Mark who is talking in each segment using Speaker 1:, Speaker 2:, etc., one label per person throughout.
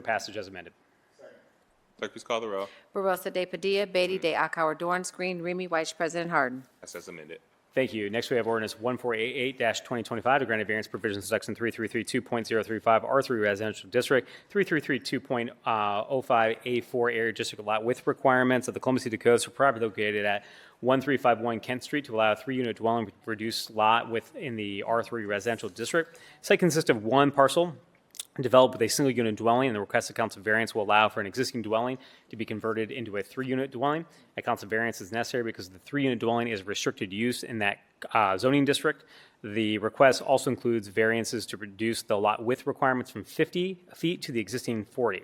Speaker 1: for passage as amended.
Speaker 2: Clerk, please call the row.
Speaker 3: Barosa de Padilla, Beatty de Akauer, Dorance Green, Remy Weiss, President Harden.
Speaker 2: Passed as amended.
Speaker 1: Thank you. Next, we have ordinance 1488-2025 to grant a variance provision to section 3332.035 R3 Residential District, 3332.05A4 Area District Lot with requirements of the Columbus City Codes for property located at 1351 Kent Street to allow a three-unit dwelling with reduced lot within the R3 Residential District. Site consists of one parcel developed with a single unit dwelling, and the requested council variance will allow for an existing dwelling to be converted into a three unit dwelling. A council variance is necessary because the three unit dwelling is restricted use in that uh, zoning district. The request also includes variances to reduce the lot width requirements from 50 feet to the existing 40.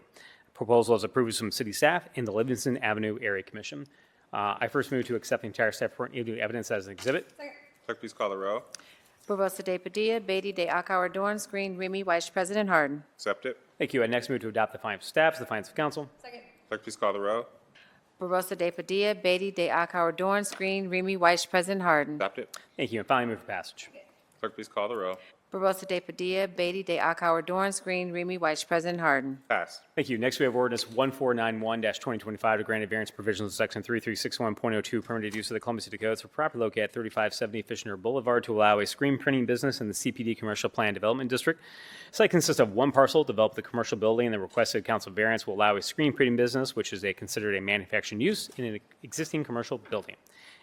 Speaker 1: Proposal is approved from city staff and the Livingston Avenue Area Commission. Uh, I first move to accept the entire staff report and evidence as an exhibit.
Speaker 2: Clerk, please call the row.
Speaker 3: Barosa de Padilla, Beatty de Akauer, Dorance Green, Remy Weiss, President Harden.
Speaker 2: Accept it.
Speaker 1: Thank you. I next move to adopt the findings of staff as the findings of council.
Speaker 2: Clerk, please call the row.
Speaker 3: Barosa de Padilla, Beatty de Akauer, Dorance Green, Remy Weiss, President Harden.
Speaker 2: Adopt it.
Speaker 1: Thank you. And finally, move for passage.
Speaker 2: Clerk, please call the row.
Speaker 3: Barosa de Padilla, Beatty de Akauer, Dorance Green, Remy Weiss, President Harden.
Speaker 2: Passed.
Speaker 1: Thank you. Next, we have ordinance 1491-2025 to grant a variance provisions of section 3361.02 permitted use of the Columbus City Codes for property located at 3570 Fishner Boulevard to allow a screen printing business in the CPD Commercial Plan Development District. Site consists of one parcel developed with a commercial building, and the requested council variance will allow a screen printing business, which is a considered a manufacturing use in an existing commercial building.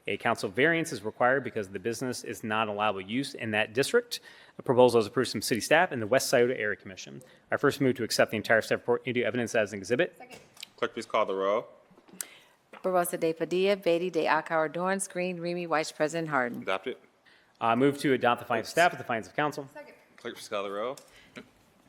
Speaker 1: A council variance is required because the business is not allowable use in that district. The proposal is approved from city staff and the West Scioto Area Commission. I first move to accept the entire staff report into evidence as an exhibit.
Speaker 2: Clerk, please call the row.
Speaker 3: Barosa de Padilla, Beatty de Akauer, Dorance Green, Remy Weiss, President Harden.
Speaker 2: Adopt it.
Speaker 1: Uh, move to adopt the findings of staff with the findings of council.
Speaker 2: Clerk, please call the row.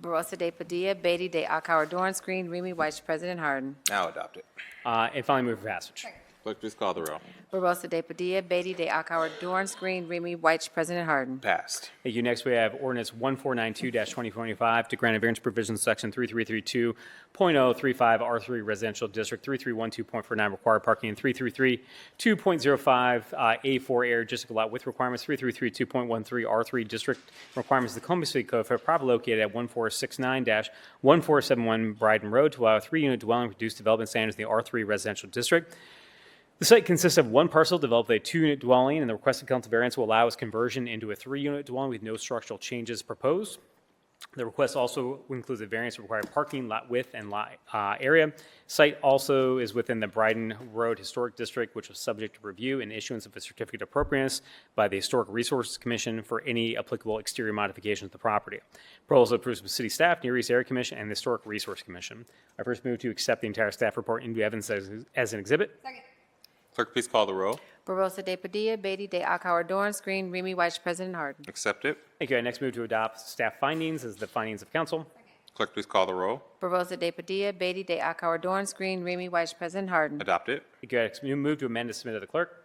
Speaker 3: Barosa de Padilla, Beatty de Akauer, Dorance Green, Remy Weiss, President Harden.
Speaker 2: Now adopt it.
Speaker 1: Uh, and finally move for passage.
Speaker 2: Clerk, please call the row.
Speaker 3: Barosa de Padilla, Beatty de Akauer, Dorance Green, Remy Weiss, President Harden.
Speaker 2: Passed.
Speaker 1: Thank you. Next, we have ordinance 1492-2025 to grant a variance provision section 3332.035 R3 Residential District, 3312.49 required parking, and 3332.05 uh, A4 Air District Lot with requirements, 3332.13 R3 District requirements of the Columbus City Code for property located at 1469-1471 Bryden Road to allow a three-unit dwelling with reduced development standards in the R3 Residential District. The site consists of one parcel developed with a two-unit dwelling, and the requested council variance will allow its conversion into a three-unit dwelling with no structural changes proposed. The request also includes a variance requiring parking, lot width, and lot uh, area. Site also is within the Bryden Road Historic District, which was subject to review and issuance of a certificate of appropriateness by the Historic Resources Commission for any applicable exterior modifications to the property. Proposal approved by city staff, Near East Area Commission, and the Historic Resource Commission. I first move to accept the entire staff report into evidence as, as an exhibit.
Speaker 2: Clerk, please call the row.
Speaker 3: Barosa de Padilla, Beatty de Akauer, Dorance Green, Remy Weiss, President Harden.
Speaker 2: Accept it.
Speaker 1: Thank you. I next move to adopt staff findings as the findings of council.
Speaker 2: Clerk, please call the row.
Speaker 3: Barosa de Padilla, Beatty de Akauer, Dorance Green, Remy Weiss, President Harden.
Speaker 2: Adopt it.
Speaker 1: Thank you. I next move to amend to submit to the clerk.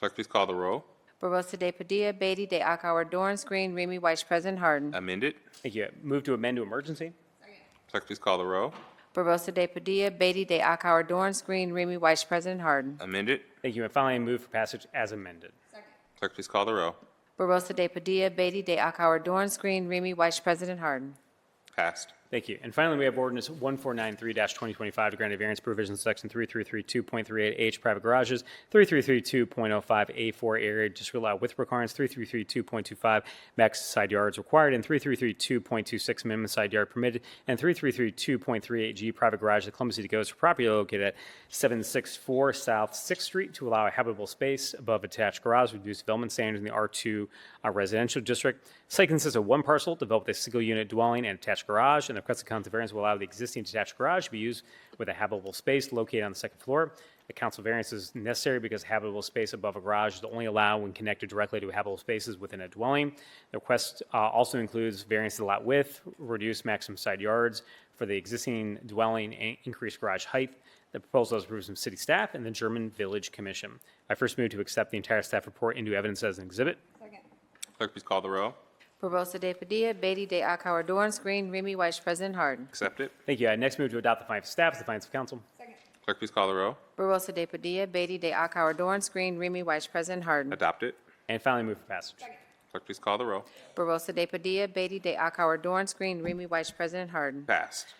Speaker 2: Clerk, please call the row.
Speaker 3: Barosa de Padilla, Beatty de Akauer, Dorance Green, Remy Weiss, President Harden.
Speaker 2: Amend it.
Speaker 1: Thank you. Move to amend to emergency.
Speaker 2: Clerk, please call the row.
Speaker 3: Barosa de Padilla, Beatty de Akauer, Dorance Green, Remy Weiss, President Harden.
Speaker 2: Amend it.
Speaker 1: Thank you. And finally, move for passage as amended.
Speaker 2: Clerk, please call the row.
Speaker 3: Barosa de Padilla, Beatty de Akauer, Dorance Green, Remy Weiss, President Harden.
Speaker 2: Passed.
Speaker 1: Thank you. And finally, we have ordinance 1493-2025 to grant a variance provision section 3332.38H private garages, 3332.05A4 area district lot with requirements, 3332.25 max side yards required, and 3332.26 minimum side yard permitted, and 3332.38G private garage, the Columbus City Codes for property located at 764 South Sixth Street to allow a habitable space above attached garage, reduce development standards in the R2 uh, residential district. Site consists of one parcel developed with a single unit dwelling and attached garage, and the requested council variance will allow the existing detached garage to be used with a habitable space located on the second floor. The council variance is necessary because habitable space above a garage is only allowed when connected directly to habitable spaces within a dwelling. The request uh, also includes variance to lot width, reduced maximum side yards for the existing dwelling, and increased garage height. The proposal is approved from city staff and the German Village Commission. I first move to accept the entire staff report into evidence as an exhibit.
Speaker 2: Clerk, please call the row.
Speaker 3: Barosa de Padilla, Beatty de Akauer, Dorance Green, Remy Weiss, President Harden.
Speaker 2: Accept it.
Speaker 1: Thank you. I next move to adopt the findings of staff as the findings of council.
Speaker 2: Clerk, please call the row.
Speaker 3: Barosa de Padilla, Beatty de Akauer, Dorance Green, Remy Weiss, President Harden.
Speaker 2: Adopt it.
Speaker 1: And finally, move for passage.
Speaker 2: Clerk, please call the row.
Speaker 3: Barosa de Padilla, Beatty de Akauer, Dorance Green, Remy Weiss, President Harden.
Speaker 2: Passed.